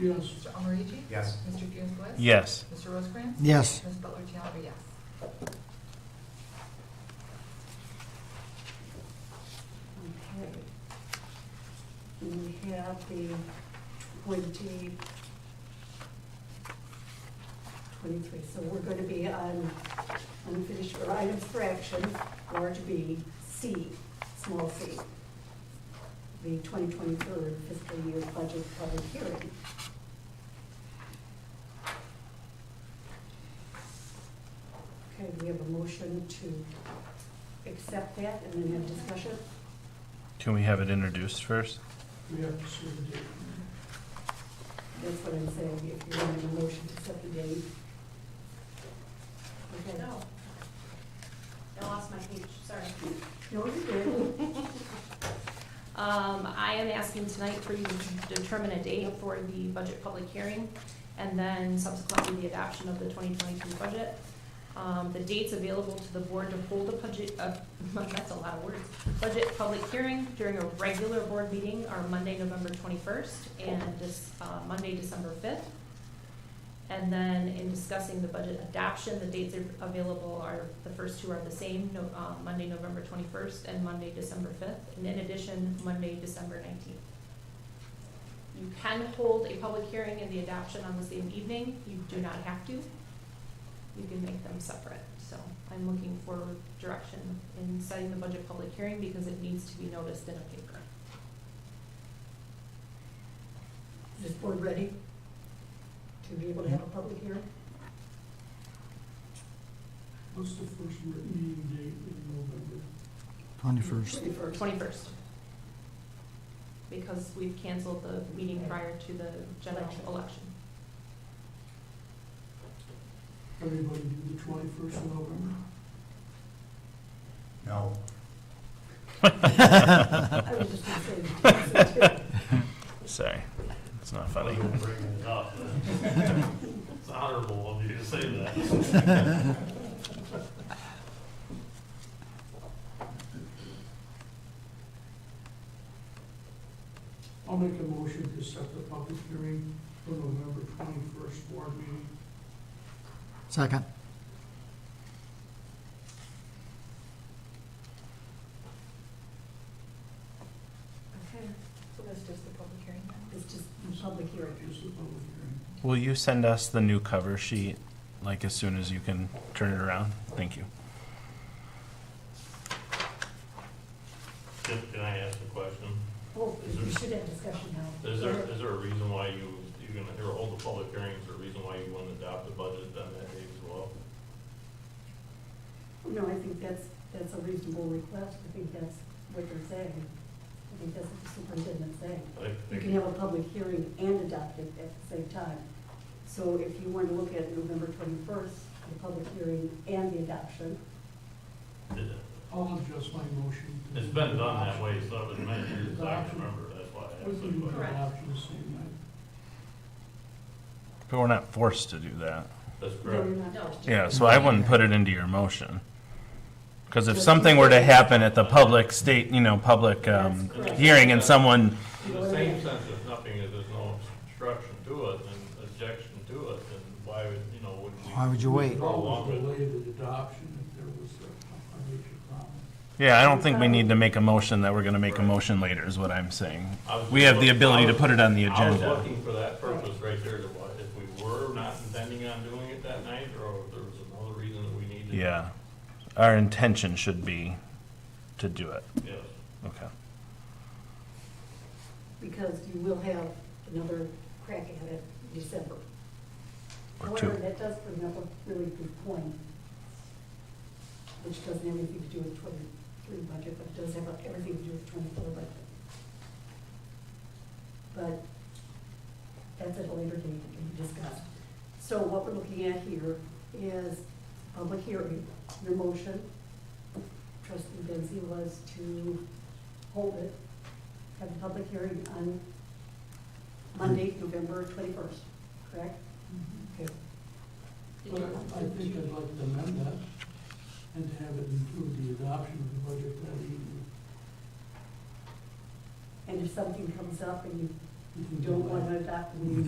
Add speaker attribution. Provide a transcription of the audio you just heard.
Speaker 1: yes,
Speaker 2: Mr. Almarigi?
Speaker 3: Yes.
Speaker 2: Mr. Junquist?
Speaker 4: Yes.
Speaker 2: Mr. Rosecrans?
Speaker 5: Yes.
Speaker 2: Ms. Butler Challenger, yes.
Speaker 6: Okay. We have the twenty, twenty-three, so we're gonna be on unfinished, or items for action, large B, C, small c. The twenty twenty-third fiscal year budget public hearing. Okay, we have a motion to accept that and then have discussion.
Speaker 4: Can we have it introduced first?
Speaker 1: we have to see the date.
Speaker 6: That's what I'm saying, if you want a motion to set the date. Okay.
Speaker 7: No. I lost my page, sorry.
Speaker 6: No, you did.
Speaker 7: Um, I am asking tonight for you to determine a date for the budget public hearing and then subsequently the adoption of the 2023 budget. Um, the dates available to the board to hold a budget, uh, that's a lot of words, budget public hearing during a regular board meeting are Monday, November 21st and this, uh, Monday, December 5th. And then in discussing the budget adoption, the dates are available are, the first two are the same, no, uh, Monday, November twenty-first and Monday, December fifth, and in addition, Monday, December nineteenth. You can hold a public hearing and the adoption on the same evening, you do not have to. You can make them separate, so I'm looking for direction in setting the budget public hearing because it needs to be noticed in a paper.
Speaker 6: Is this board ready to be able to have a public hearing?
Speaker 1: What's the first written meeting date in November?
Speaker 5: Twenty-first.
Speaker 6: Twenty-first.
Speaker 7: Twenty-first. Because we've canceled the meeting prior to the general
Speaker 6: Election.
Speaker 7: election.
Speaker 1: Everybody do the twenty-first of November?
Speaker 3: No.
Speaker 6: I was just gonna say, the dates are too.
Speaker 4: Sorry, it's not funny.
Speaker 8: You're bringing it up. It's honorable of you to say that.
Speaker 1: I'll make a motion to set the public hearing for November twenty-first board meeting.
Speaker 5: Second.
Speaker 6: Okay,
Speaker 2: So that's just the public hearing then?
Speaker 6: it's just a public hearing.
Speaker 1: Is the public hearing.
Speaker 4: Will you send us the new cover sheet, like as soon as you can turn it around? Thank you.
Speaker 8: Just, can I ask a question?
Speaker 6: Oh, we should have discussion now.
Speaker 8: Is there, is there a reason why you, you're gonna, or hold the public hearings, or a reason why you wouldn't adopt the budget on that day as well?
Speaker 6: No, I think that's, that's a reasonable request, I think that's what they're saying. I think that's what the superintendent's saying.
Speaker 8: I
Speaker 6: You
Speaker 8: think-
Speaker 6: can have a public hearing and adopt it at the same time. So if you want to look at November twenty-first, the public hearing and the adoption,
Speaker 1: I'll adjust my motion. to-
Speaker 8: It's been done that way, so it was many years, I can remember, that's why I
Speaker 1: We
Speaker 8: asked
Speaker 1: can do
Speaker 8: the
Speaker 1: it
Speaker 8: question.
Speaker 7: Correct.
Speaker 1: after the same night.
Speaker 4: But we're not forced to do that.
Speaker 8: That's
Speaker 6: then
Speaker 8: correct.
Speaker 6: you're not.
Speaker 7: No.
Speaker 4: Yeah, so I wouldn't put it into your motion. Because if something were to happen at the public state, you know, public um,
Speaker 6: That's correct.
Speaker 4: hearing and someone,
Speaker 8: In the same sense, if nothing, if there's no obstruction to it, and objection to it, then why would, you know, would we?
Speaker 5: Why would you wait?
Speaker 1: We'd Always delay the adoption if there was a a major problem.
Speaker 4: yeah, I don't think we need to make a motion that we're gonna make a motion later, is what I'm saying.
Speaker 8: I was-
Speaker 4: We have the ability to put it on the
Speaker 8: I was
Speaker 4: agenda.
Speaker 8: looking for that purpose right there, to what, if we were not intending on doing it that night, or if there was another reason that we needed.
Speaker 4: Yeah. Our intention should be to do it.
Speaker 8: Yes,
Speaker 4: Okay.
Speaker 6: Because you will have another crack at it in December.
Speaker 4: Or two.
Speaker 6: However, that does bring up a really good point, which doesn't have anything to do with twenty-three budget, but does have everything to do with twenty-four budget. But that's at a later date that can be discussed. So what we're looking at here is public hearing, your motion. Trustee Benzie was to hold it, have a public hearing on Monday, November twenty-first, correct? Okay.
Speaker 7: Did
Speaker 1: But
Speaker 7: you-
Speaker 1: I think I'd like to amend that and to have it include the adoption of the budget that evening.
Speaker 6: And if something comes up and
Speaker 1: We
Speaker 6: you
Speaker 1: can do
Speaker 6: don't
Speaker 1: that.
Speaker 6: want to adopt, we